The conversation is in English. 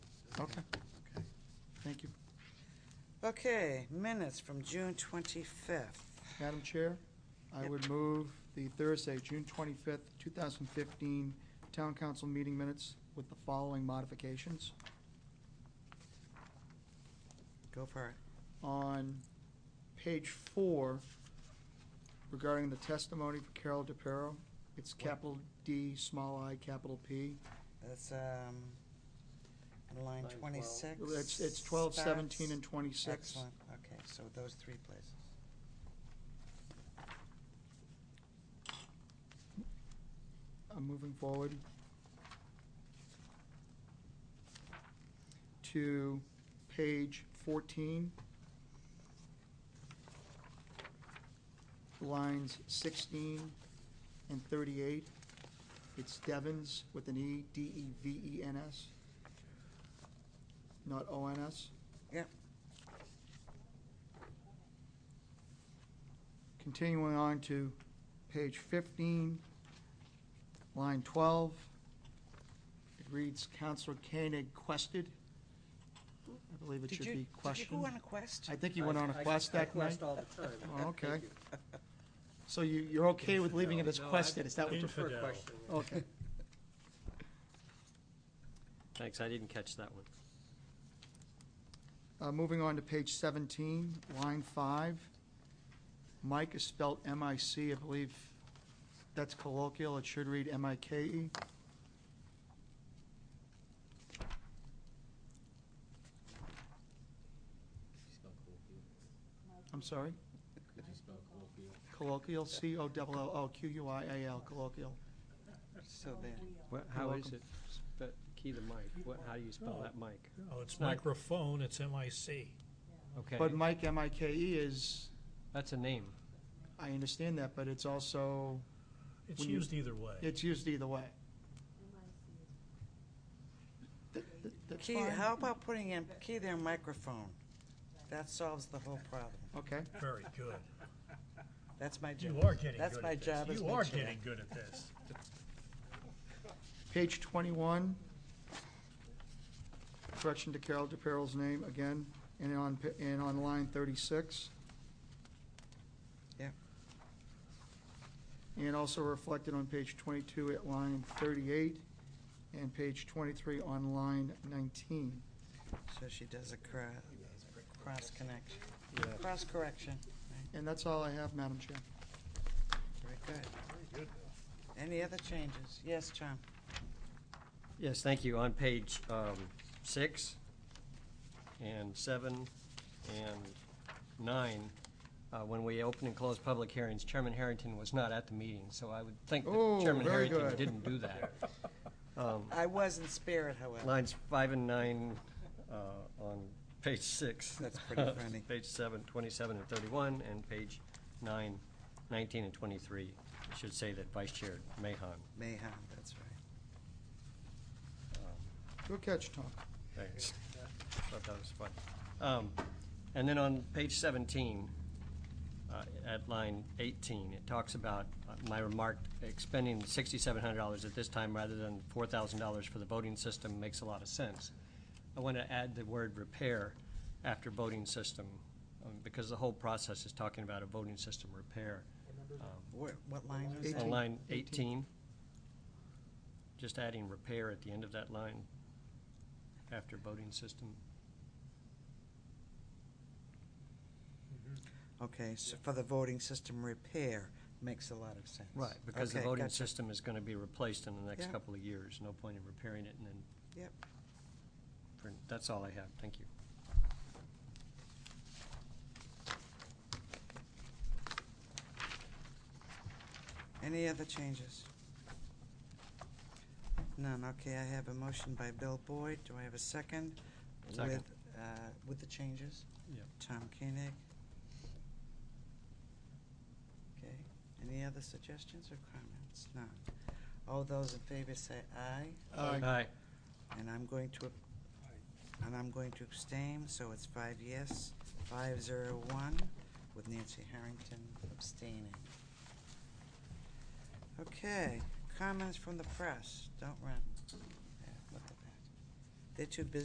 Okay, minutes from June 25th. Madam Chair, I Yep. would move the Thursday, June 25th, 2015 Town Council meeting minutes with the following modifications. Go for it. On page four, regarding the testimony for Carol DePiero, it's capital D, small i, capital P. That's, um, in line Line 12. twenty-six. It's it's 12, 17, and 26. Excellent, okay, so those three places. I'm moving forward to page 14, lines 16 and 38. It's Devens with an E, D-E-V-E-N-S, not O-N-S. Yep. Continuing on to page 15, line 12. It reads, Counselor Koenig quested. I believe it Did should you, be did you go questioned. on a quest? I think you went on a I- I- quest I that night. quest all the time. Oh, Thank okay. you. So you, you're okay with leaving it as No, I- quested, is that what I you're? prefer Infidel. question. Okay. Thanks, I didn't catch that one. Uh, moving on to page 17, line 5. Mike is spelled M-I-C, I believe that's colloquial, it should read M-I-K-E. I'm sorry? Oh. Colloquial, C-O-L-L-O-Q-U-I-A-L, colloquial. So there, Oh, What, how is it, spe- key the mic, what, how do you spell that mic? Oh, it's Right. microphone, it's MIC. Okay, But Mike, M-I-K-E E is, that's a name, I understand that, but it's also, It's When you- used either way. it's used either way. Th- th- that's key, fine. how about putting in, key their microphone? That solves the whole problem. Okay. Very good. That's my job. You are getting good That's my at job this. as You are chair. getting good at this. Page 21, correction to Carol DePiro's name again, and on, pa- and on line 36. Yeah. And also reflected on page 22 at line 38, and page 23 on line 19. So she does a cra- cross connection, cross correction. And that's all I have, Madam Chair. Very good. Any other changes? Yes, John? Yes, thank you. On page um, six and seven and nine, uh, when we open and close public hearings, Chairman Harrington was not at the meeting, so I would think that Oh, Chairman very Harrington good. didn't do that. Um, I was in spirit, however. Lines five and nine uh, on page six. That's pretty funny. Page seven, 27 and 31, and page nine, 19 and 23. I Should say that Vice Chair Mahon. Mayhem, that's right. um, Good catch, Tom. Thanks. Thought that was fun. Um, And then on page 17, uh, at line 18, it talks about uh, my remark, expending $6,700 at this time rather than $4,000 for the voting system makes a lot of sense. I want to add the word repair after voting system, um, because the whole process is talking about a voting system repair. Um, What, what line was On that? Eighteen. line 18, just adding repair at the end of that line after voting system. Okay, so for the voting system repair, makes a lot of sense. Because the Okay, voting gotcha. system is going to be replaced in the next Yeah. couple of years. No point in repairing it and then. Yep. for- That's all I have. Thank you. Any other changes? None, okay, I have a motion by Bill Boyd, do I have a second? Second. With, uh, with the changes? Yep. Tom Koenig. Okay, any other suggestions or comments? None. All those in favor say aye. Aye. And I'm going to, and I'm going to abstain, so it's five yes, five zero one, with Nancy Harrington abstaining. Okay, comments from the press, don't run. Yeah, look at that. They're too busy